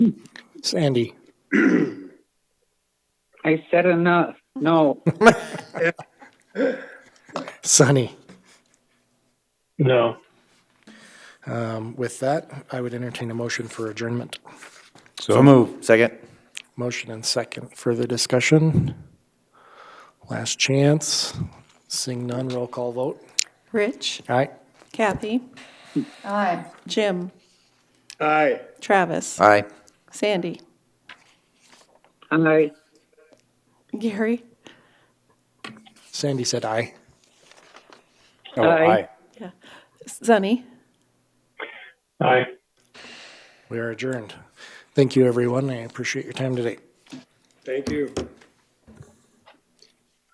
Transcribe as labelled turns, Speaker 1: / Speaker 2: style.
Speaker 1: Sandy.
Speaker 2: I said enough. No,
Speaker 1: Sunny.
Speaker 3: No.
Speaker 1: Um, With that, I would entertain a motion for adjournment.
Speaker 4: So move. Second.
Speaker 1: Motion and second. Further discussion? Last chance. Seeing none, roll call vote.
Speaker 5: Rich,
Speaker 1: Aye.
Speaker 5: Kathy,
Speaker 6: Aye.
Speaker 5: Jim,
Speaker 3: Aye.
Speaker 5: Travis,
Speaker 4: Aye.
Speaker 5: Sandy,
Speaker 2: I.
Speaker 5: Gary.
Speaker 1: Sandy said aye.
Speaker 4: Oh,
Speaker 2: Aye.
Speaker 5: Yeah. Sunny.
Speaker 3: Aye.
Speaker 1: We are adjourned. Thank you, everyone. I appreciate your time today.
Speaker 3: Thank you.